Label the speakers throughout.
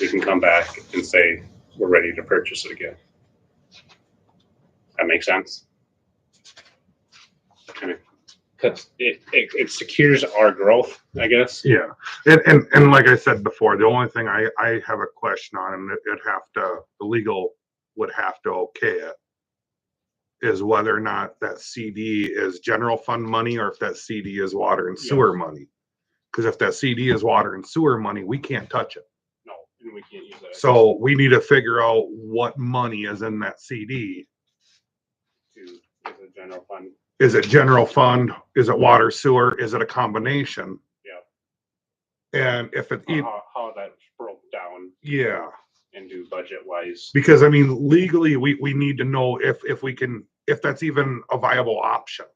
Speaker 1: we can come back and say, we're ready to purchase it again. That makes sense? Kind of, cause it, it, it secures our growth, I guess.
Speaker 2: Yeah, and, and, and like I said before, the only thing I, I have a question on, and it- it'd have to, the legal would have to okay it, is whether or not that CD is general fund money or if that CD is water and sewer money. Because if that CD is water and sewer money, we can't touch it.
Speaker 1: No, and we can't use that
Speaker 2: So we need to figure out what money is in that CD.
Speaker 1: to, as a general fund.
Speaker 2: Is it general fund? Is it water sewer? Is it a combination?
Speaker 1: Yeah.
Speaker 2: And if it, e-
Speaker 1: How, how that's broke down
Speaker 2: yeah.
Speaker 1: and do budget wise.
Speaker 2: Because I mean, legally, we, we need to know if, if we can, if that's even a viable option.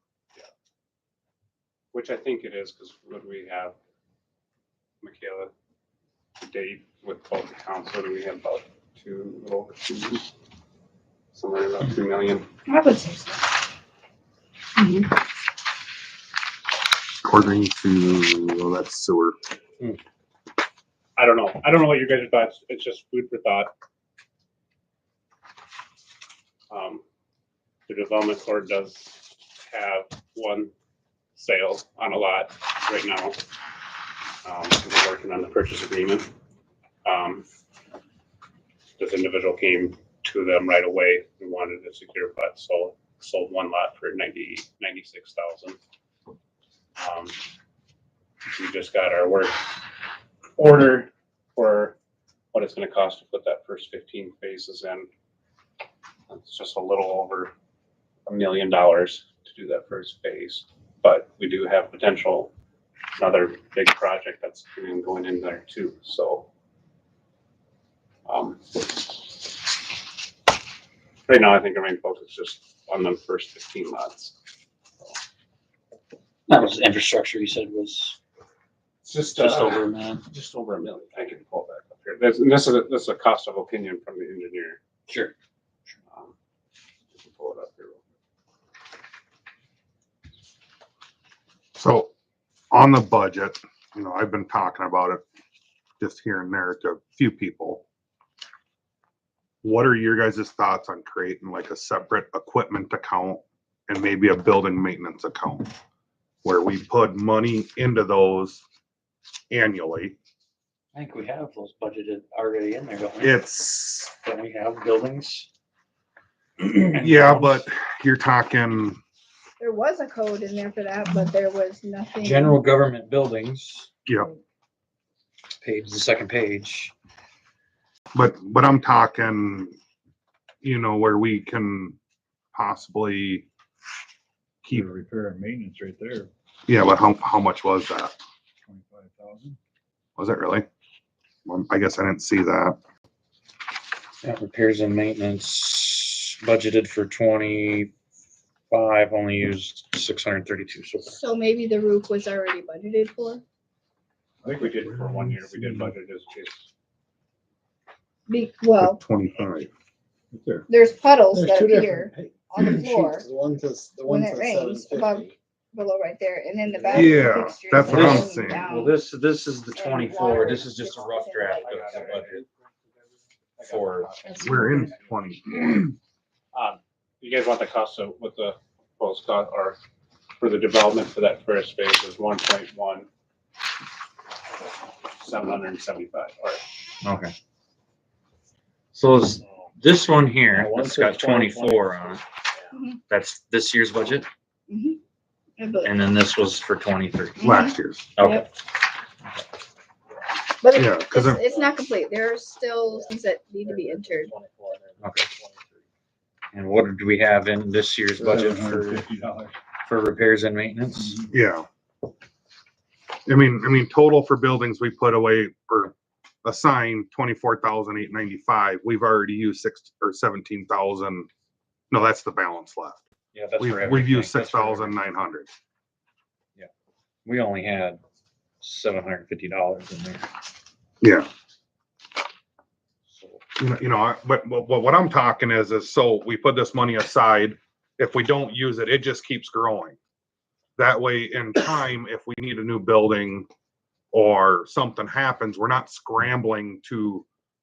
Speaker 1: Which I think it is, because what do we have, Michaela, to date with both accounts, what do we have about two, a little over two? Somewhere about two million.
Speaker 3: I would say so.
Speaker 4: According to, well, that's sewer.
Speaker 1: I don't know. I don't know what your guys' thoughts. It's just food for thought. Um, the development board does have one sale on a lot right now. Um, we're working on the purchase agreement. Um, this individual came to them right away and wanted to secure, but sold, sold one lot for ninety, ninety-six thousand. Um, we just got our work order for what it's gonna cost to put that first fifteen phases in. It's just a little over a million dollars to do that first phase, but we do have potential another big project that's even going in there too, so. um, Right now, I think our main focus is just on the first fifteen lots.
Speaker 5: That was infrastructure you said was
Speaker 1: It's just, uh,
Speaker 5: just
Speaker 6: uh,
Speaker 5: over a million.
Speaker 1: just over a million. I can pull that up here. This, this is, a- this is a cost of opinion from the engineer.
Speaker 5: Sure.
Speaker 1: Um, if you Pull it up here. real quick.
Speaker 2: So on the budget, you know, I've been talking about it just here and there to a few people. What are your guys' thoughts on creating like a separate equipment account and maybe a building maintenance account? Where we put money into those annually.
Speaker 5: I think we have those budgeted already in there, don't we?
Speaker 2: It's
Speaker 5: Don't we have buildings?
Speaker 2: Yeah, but you're talking,
Speaker 3: There was a code in there for that, but there was nothing.
Speaker 5: General government buildings.
Speaker 2: Yep.
Speaker 5: Page, the second page.
Speaker 2: but, but I'm talking, you know, where we can possibly keep,
Speaker 7: Repair and maintenance right there,
Speaker 2: yeah, but how, how much was that?
Speaker 7: twenty-five thousand.
Speaker 2: Was it really? Well, I guess I didn't see that.
Speaker 5: Yeah, Repairs and maintenance budgeted for twenty-five, only used six hundred and thirty-two so far.
Speaker 3: So maybe the roof was already budgeted for,
Speaker 1: I think we did for one year, we did budget as just.
Speaker 3: be, well,
Speaker 2: Twenty-five.
Speaker 7: Right there.
Speaker 3: there's puddles
Speaker 7: There's
Speaker 3: that
Speaker 7: two
Speaker 3: appear
Speaker 7: different pa-
Speaker 3: on the
Speaker 7: sheets.
Speaker 3: floor
Speaker 7: The one that's, the
Speaker 3: When it
Speaker 7: one that's
Speaker 3: rains,
Speaker 7: seven
Speaker 3: above-
Speaker 7: fifty.
Speaker 3: below right there, and then the bathroom.
Speaker 2: Yeah,
Speaker 3: fixtures
Speaker 2: that's
Speaker 5: what I'm
Speaker 3: hanging
Speaker 2: saying.
Speaker 3: down.
Speaker 6: Well, this, this is the
Speaker 3: And
Speaker 6: twenty-four,
Speaker 3: water
Speaker 6: this is just a rough
Speaker 3: is
Speaker 6: draft
Speaker 3: like-
Speaker 6: of the budget. For-
Speaker 2: We're in twenty.
Speaker 1: Um, you guys want the cost of, what the proposed cost are for the development for that first phase is one point one. Seven hundred and seventy-five, all right.
Speaker 6: Okay. So is this one here, that's got twenty-four on it,
Speaker 3: Mhm.
Speaker 6: that's this year's budget,
Speaker 3: Mhm. I believe-
Speaker 6: and then this was for twenty-three.
Speaker 2: Last year's,
Speaker 6: Okay,
Speaker 3: Yep. But
Speaker 2: yeah,
Speaker 3: it-
Speaker 2: because
Speaker 3: it's, it's not complete, there are still things that need to be entered.
Speaker 6: Okay. and what do we have in this year's budget for,
Speaker 7: $750.
Speaker 6: for repairs and maintenance?
Speaker 2: Yeah. I mean, I mean, total for buildings, we put away or assigned twenty-four thousand eight ninety-five. We've already used six or seventeen thousand. No, that's the balance left.
Speaker 6: Yeah, that's
Speaker 2: We've,
Speaker 6: for
Speaker 2: we've
Speaker 6: everything.
Speaker 2: used six
Speaker 6: That's for everything.
Speaker 2: thousand nine hundred.
Speaker 6: We only had seven hundred and fifty dollars in there.
Speaker 2: Yeah.
Speaker 6: So
Speaker 2: You know, you know, I- but, but but what I'm talking is, is so we put this money aside. If we don't use it, it just keeps growing. That way in time, if we need a new building or something happens, we're not scrambling to